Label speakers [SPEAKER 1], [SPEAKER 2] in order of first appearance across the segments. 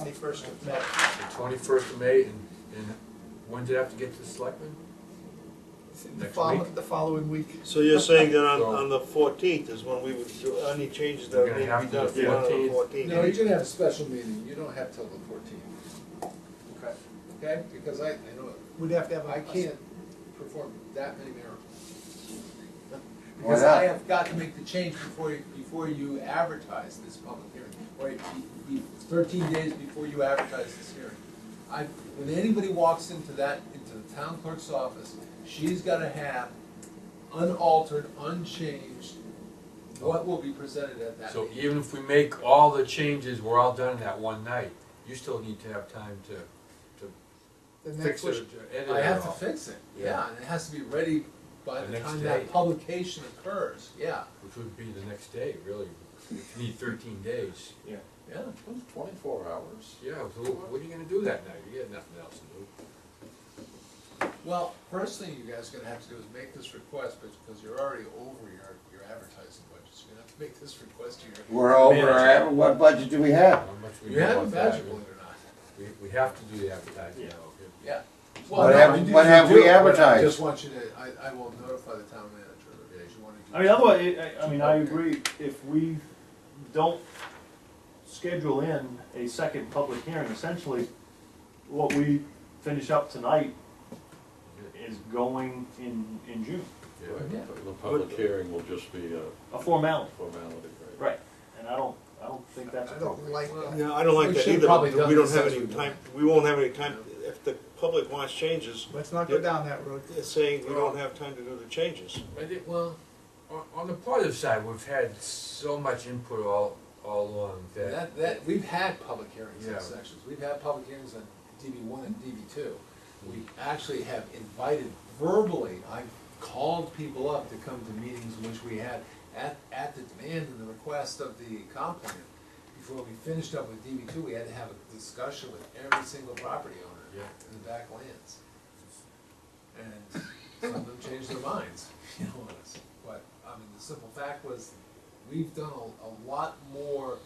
[SPEAKER 1] twenty-first of May.
[SPEAKER 2] The twenty-first of May, and, and when did I have to get to the selectmen?
[SPEAKER 1] The
[SPEAKER 2] Next
[SPEAKER 1] follow-
[SPEAKER 2] week?
[SPEAKER 1] The following week.
[SPEAKER 3] So you're saying that on,
[SPEAKER 2] So-
[SPEAKER 3] on the fourteenth is when we would do any changes that
[SPEAKER 2] We're gonna
[SPEAKER 3] need to
[SPEAKER 2] have
[SPEAKER 3] be
[SPEAKER 2] to
[SPEAKER 3] done
[SPEAKER 2] do
[SPEAKER 3] for on the
[SPEAKER 2] 14th.
[SPEAKER 3] fourteenth?
[SPEAKER 4] No, you're gonna have a special meeting, you don't have till the fourteenth,
[SPEAKER 1] Okay.
[SPEAKER 4] okay? Because I, I know,
[SPEAKER 1] We'd have to have. a-
[SPEAKER 4] I can't perform that many miracles.
[SPEAKER 5] Why
[SPEAKER 4] Because I
[SPEAKER 5] not?
[SPEAKER 4] have got to make the change before, you- before you advertise this public hearing, or be- be- thirteen days before you advertise this hearing. I, when anybody walks into that, into the town clerk's office, she's gotta have unaltered, unchanged, what will be presented at that
[SPEAKER 2] So
[SPEAKER 4] meeting.
[SPEAKER 2] even if we make all the changes, we're all done in that one night, you still need to have time to
[SPEAKER 1] The next
[SPEAKER 2] fix it,
[SPEAKER 1] week.
[SPEAKER 2] to edit it
[SPEAKER 4] I have to
[SPEAKER 2] all.
[SPEAKER 4] fix it,
[SPEAKER 2] Yeah.
[SPEAKER 4] yeah, and it has to be ready by
[SPEAKER 2] The
[SPEAKER 4] the
[SPEAKER 2] next
[SPEAKER 4] time
[SPEAKER 2] day.
[SPEAKER 4] that publication occurs, yeah,
[SPEAKER 2] Which would be the next day, really, if you need thirteen days.
[SPEAKER 4] yeah.
[SPEAKER 5] Twenty-four hours.
[SPEAKER 2] Yeah, so what are you gonna do that night? You got nothing else to do.
[SPEAKER 4] Well, first thing you guys are gonna have to do is make this request, but because you're already over your, your advertising budget, so you're gonna have to make this request to your.
[SPEAKER 5] We're over, our ad- what budget do we have?
[SPEAKER 2] How much we
[SPEAKER 4] You have a
[SPEAKER 2] want
[SPEAKER 4] budget,
[SPEAKER 2] that.
[SPEAKER 4] believe it or not,
[SPEAKER 2] We, we have to do the advertising now.
[SPEAKER 4] yeah.
[SPEAKER 5] What have- what have
[SPEAKER 4] advertised?
[SPEAKER 5] we
[SPEAKER 4] I
[SPEAKER 5] advertised?
[SPEAKER 4] just want you to, I, I will notify the town manager that you wanna do.
[SPEAKER 6] I mean, otherwise, I- I, I mean, I agree, if we don't schedule in a second public hearing, essentially, what we finish up tonight is going in, in June,
[SPEAKER 4] Yeah.
[SPEAKER 7] The public hearing will just be a
[SPEAKER 6] a formality.
[SPEAKER 7] formality, right?
[SPEAKER 6] Right. And I don't, I don't think that's
[SPEAKER 4] I don't
[SPEAKER 6] appropriate.
[SPEAKER 4] like that.
[SPEAKER 3] No, I don't like
[SPEAKER 4] We
[SPEAKER 3] that
[SPEAKER 4] should probably
[SPEAKER 3] either,
[SPEAKER 4] done
[SPEAKER 3] we don't
[SPEAKER 4] this
[SPEAKER 3] have
[SPEAKER 4] as
[SPEAKER 3] any
[SPEAKER 4] we
[SPEAKER 3] time,
[SPEAKER 4] went.
[SPEAKER 3] we won't have any time, if the public wants changes,
[SPEAKER 1] Let's not go
[SPEAKER 3] Yeah.
[SPEAKER 1] down that road.
[SPEAKER 3] it's saying we don't have time to do the changes.
[SPEAKER 2] I think, well, on, on the positive side, we've had so much input all, all along that,
[SPEAKER 4] That, that, we've had public hearings
[SPEAKER 2] Yeah.
[SPEAKER 4] in sections, we've had public hearings on DB one and DB two. We actually have invited verbally, I've called people up to come to meetings which we had at, at the demand and the request of the comp plan. Before we finished up with DB two, we had to have a discussion with every single property owner
[SPEAKER 2] Yeah.
[SPEAKER 4] in the backlands. And some of them changed their minds, you know, on us. but, I mean, the simple fact was, we've done a, a lot more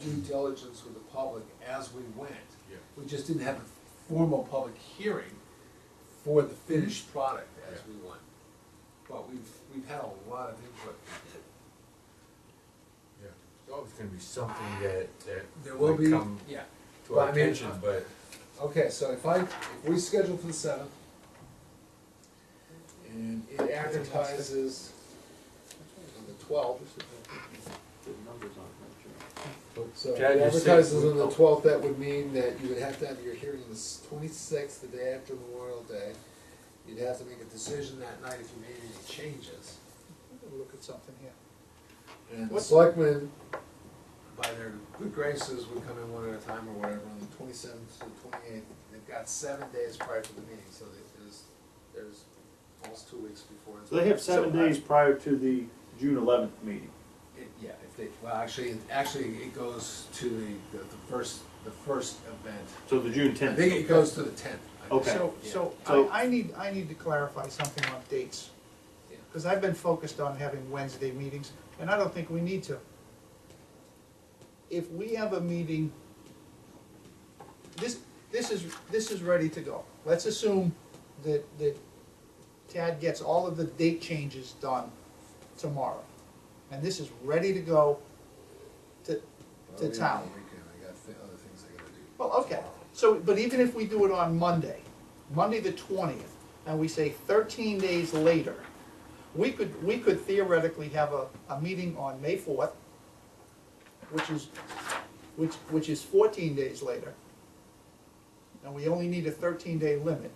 [SPEAKER 4] due diligence with the public as we went.
[SPEAKER 2] Yeah.
[SPEAKER 4] We just didn't have a formal public hearing for the finished product as we went. But we've, we've had a lot of input.
[SPEAKER 2] yeah, it's always gonna be something that,
[SPEAKER 4] There
[SPEAKER 2] that
[SPEAKER 4] will
[SPEAKER 2] will
[SPEAKER 4] be,
[SPEAKER 2] come
[SPEAKER 4] yeah.
[SPEAKER 2] to our
[SPEAKER 4] But I mean,
[SPEAKER 2] attention, but
[SPEAKER 4] Okay, so if I, if we schedule for the seventh, and it advertises on the twelfth. So if it
[SPEAKER 2] Chad, you said-
[SPEAKER 4] advertises on the twelfth, that would mean that you would have to have your hearing on the twenty-sixth, the day after Memorial Day. You'd have to make a decision that night if you made any changes.
[SPEAKER 1] Look at something here.
[SPEAKER 4] And the
[SPEAKER 1] What-
[SPEAKER 4] selectmen, by their good graces, would come in one at a time or whatever, on the twenty-seventh to the twenty-eighth. They've got seven days prior to the meeting, so they- there's, there's almost two weeks before.
[SPEAKER 6] So they have seven
[SPEAKER 4] So I-
[SPEAKER 6] days prior to the June eleventh meeting.
[SPEAKER 4] it- Yeah, if they, well, actually, it- actually, it goes to the, the the first, the first event.
[SPEAKER 6] So the June
[SPEAKER 4] I
[SPEAKER 6] tenth.
[SPEAKER 4] think it goes to the tenth.
[SPEAKER 6] Okay.
[SPEAKER 1] So, so
[SPEAKER 6] So-
[SPEAKER 1] I, I need, I need to clarify something on dates.
[SPEAKER 4] Yeah.
[SPEAKER 1] Because I've been focused on having Wednesday meetings, and I don't think we need to. If we have a meeting, this, this is, this is ready to go. Let's assume that, that Tad gets all of the date changes done tomorrow. And this is ready to go to, to town.
[SPEAKER 4] I got thi- other things I gotta do.
[SPEAKER 1] Well, okay, so, but even if we do it on Monday, Monday the twentieth, and we say thirteen days later, we could, we could theoretically have a, a meeting on May fourth, which is, which, which is fourteen days later. And we only need a thirteen day limit.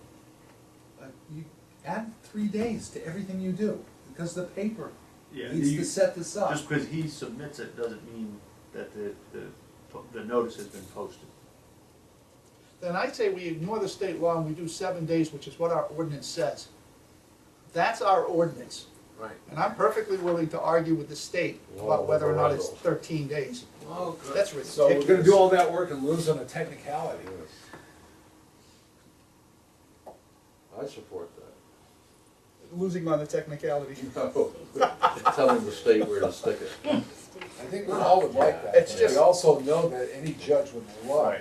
[SPEAKER 4] Uh, You add three days to everything you do, because the paper
[SPEAKER 6] Yeah,
[SPEAKER 4] needs
[SPEAKER 6] you-
[SPEAKER 4] to set this up.
[SPEAKER 6] Just because he submits it doesn't mean that the, the, the notice has been posted.
[SPEAKER 1] Then I say we ignore the state law and we do seven days, which is what our ordinance says. That's our ordinance,
[SPEAKER 4] Right.
[SPEAKER 1] and I'm perfectly willing to argue with the state about whether or not it's thirteen days.
[SPEAKER 4] Oh, good.
[SPEAKER 1] That's
[SPEAKER 4] So we're gonna
[SPEAKER 1] ridiculous.
[SPEAKER 4] do all that work and lose on a technicality.
[SPEAKER 7] I support that.
[SPEAKER 1] losing on the technicality.
[SPEAKER 7] Telling the state where to stick it.
[SPEAKER 4] I think we all would like that.
[SPEAKER 1] It's
[SPEAKER 4] but
[SPEAKER 1] just-
[SPEAKER 4] We also know that any judge would love